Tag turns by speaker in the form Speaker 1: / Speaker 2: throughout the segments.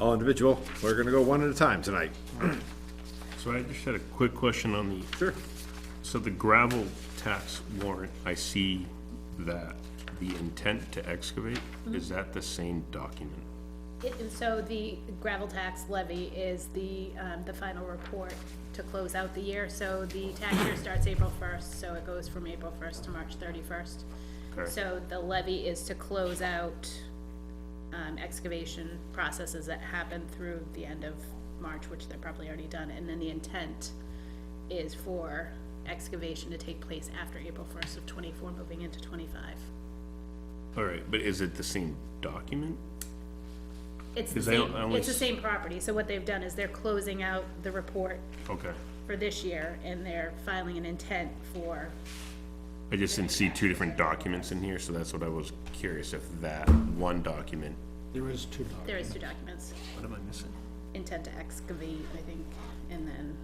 Speaker 1: all individual. We're gonna go one at a time tonight.
Speaker 2: So I just had a quick question on the,
Speaker 1: Sure.
Speaker 2: so the gravel tax warrant, I see that the intent to excavate, is that the same document?
Speaker 3: It- So the gravel tax levy is the, um, the final report to close out the year. So the tax year starts April first, so it goes from April first to March thirty-first.
Speaker 2: Okay.
Speaker 3: So the levy is to close out, um, excavation processes that happen through the end of March, which they're probably already done. And then the intent is for excavation to take place after April first of twenty-four, moving into twenty-five.
Speaker 2: All right, but is it the same document?
Speaker 3: It's the
Speaker 2: Because I don't-
Speaker 3: same,
Speaker 2: I only
Speaker 3: it's the
Speaker 2: s-
Speaker 3: same property. So what they've done is they're closing out the report
Speaker 2: Okay,
Speaker 3: for this year, and they're filing an intent for,
Speaker 2: I just didn't see two different documents in here, so that's what I was curious if that one document.
Speaker 4: There is two dogs.
Speaker 3: there is two documents,
Speaker 2: What am I missing?
Speaker 3: intent to excavate, I think, and then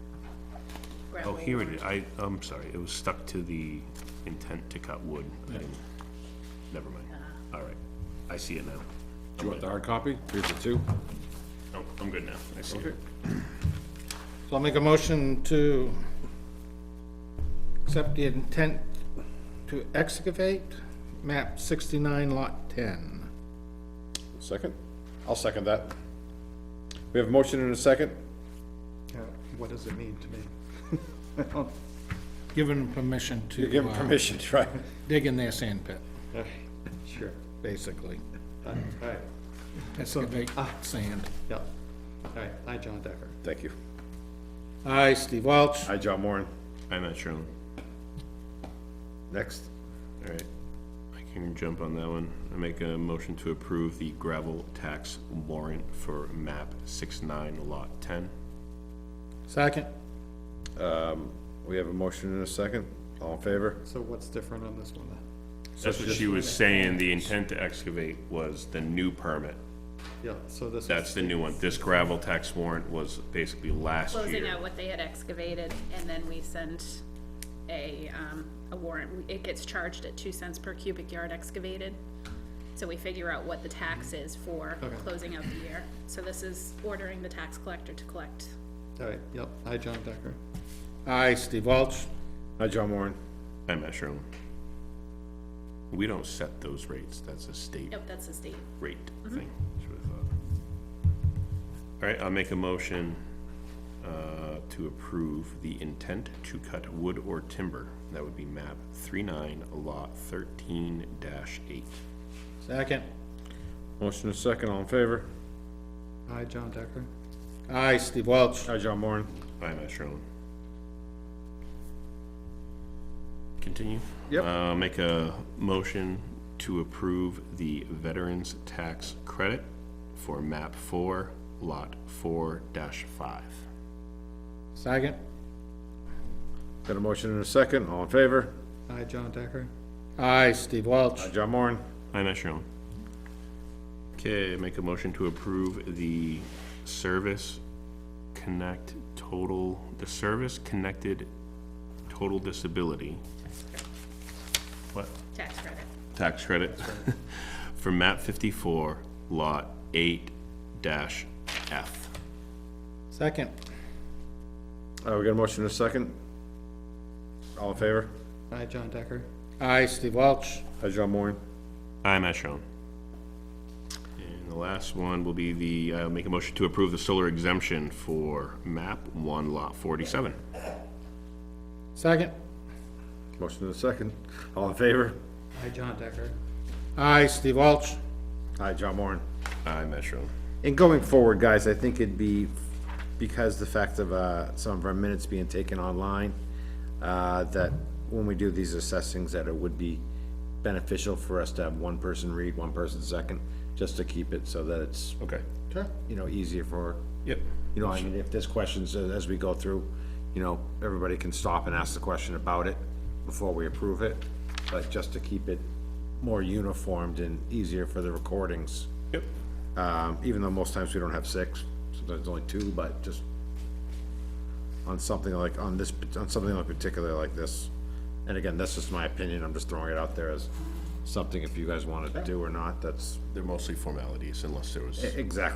Speaker 3: gravel.
Speaker 2: Oh, here it is, I, I'm sorry, it was stuck to the intent to cut wood. I didn't- Never mind, all right, I see it now.
Speaker 1: Do you want the hard copy? Here's the two.
Speaker 2: No, Oh, I'm good now, I see it.
Speaker 4: So I'll make a motion to accept the intent to excavate map sixty-nine lot ten.
Speaker 1: Second? I'll second that. We have a motion and a second.
Speaker 5: Yeah, Uh, what does it mean to me?
Speaker 4: Given permission
Speaker 1: You're
Speaker 4: to
Speaker 1: given
Speaker 4: uh,
Speaker 1: permission, right?
Speaker 4: dig in their sand pit,
Speaker 5: Sure. Uh,
Speaker 4: basically.
Speaker 5: All right,
Speaker 4: Excavate sand.
Speaker 5: yeah. All right, I, John Decker.
Speaker 1: Thank you.
Speaker 4: Aye, Steve Welch.
Speaker 1: Hi, John Moran.
Speaker 2: I'm not sure.
Speaker 1: Next.
Speaker 2: All right, I can jump on that one. I make a motion to approve the gravel tax warrant for map six nine lot ten.
Speaker 4: Second.
Speaker 1: We have a motion and a second. All in favor?
Speaker 5: So what's different on this one then?
Speaker 2: That's what she was saying, the intent to excavate was the new permit.
Speaker 5: Yeah, so this
Speaker 2: That's
Speaker 5: is,
Speaker 2: the new one. This gravel tax warrant was basically last
Speaker 3: Closing
Speaker 2: year.
Speaker 3: out what they had excavated, and then we send a, um, a warrant. It gets charged at two cents per cubic yard excavated. So we figure out what the tax is for
Speaker 5: Okay.
Speaker 3: closing out the year. So this is ordering the tax collector to collect.
Speaker 5: all right, yep, I, John Decker.
Speaker 4: Aye, Steve Welch.
Speaker 1: Hi, John Moran.
Speaker 2: I'm not sure. We don't set those rates, that's a state
Speaker 3: Nope, that's the state.
Speaker 2: rate thing. that's what I thought. All right, I'll make a motion uh, to approve the intent to cut wood or timber. That would be map 39, lot 13 dash 8.
Speaker 4: Second.
Speaker 1: Motion and a second. All in favor?
Speaker 5: I, John Decker.
Speaker 4: Aye, Steve Welch.
Speaker 1: Hi, John Moran.
Speaker 2: By Matt Sherlin. Continue?
Speaker 1: Yep.
Speaker 2: Uh, Make a motion to approve the veterans tax credit for map 4, lot 4 dash 5.
Speaker 4: Second.
Speaker 1: Got a motion and a second. All in favor?
Speaker 5: I, John Decker.
Speaker 4: Aye, Steve Welch.
Speaker 1: Hi, John Moran.
Speaker 2: I'm not sure. Okay, make a motion to approve the service connect total, the service connected total disability. What?
Speaker 3: Tax credit.
Speaker 2: Tax credit for map fifty-four, lot eight dash F.
Speaker 4: Second.
Speaker 1: Uh, we got a motion and a second. All in favor?
Speaker 5: I, John Decker.
Speaker 4: Aye, Steve Welch.
Speaker 1: Hi, John Moran.
Speaker 2: I'm as shown. And the last one will be the, uh, make a motion to approve the solar exemption for map one, lot forty-seven.
Speaker 4: Second.
Speaker 1: Motion and a second. All in favor?
Speaker 5: I, John Decker.
Speaker 4: Aye, Steve Welch.
Speaker 1: Hi, John Moran.
Speaker 2: I'm as shown.
Speaker 1: And going forward, guys, I think it'd be, because the fact of, uh, some of our minutes being taken online, uh, that when we do these assessings, that it would be beneficial for us to have one person read, one person second, just to keep it so that it's,
Speaker 2: Okay.
Speaker 4: Sure.
Speaker 1: you know, easier for,
Speaker 2: Yep.
Speaker 1: you know, I mean, if there's questions as, as we go through, you know, everybody can stop and ask the question about it before we approve it, but just to keep it more uniformed and easier for the recordings.
Speaker 2: Yep.
Speaker 1: Um, even though most times we don't have six, sometimes only two, but just on something like, on this, on something like particular like this. And again, that's just my opinion, I'm just throwing it out there as something if you guys wanted to do or not, that's
Speaker 2: They're mostly formalities unless there was.
Speaker 1: exactly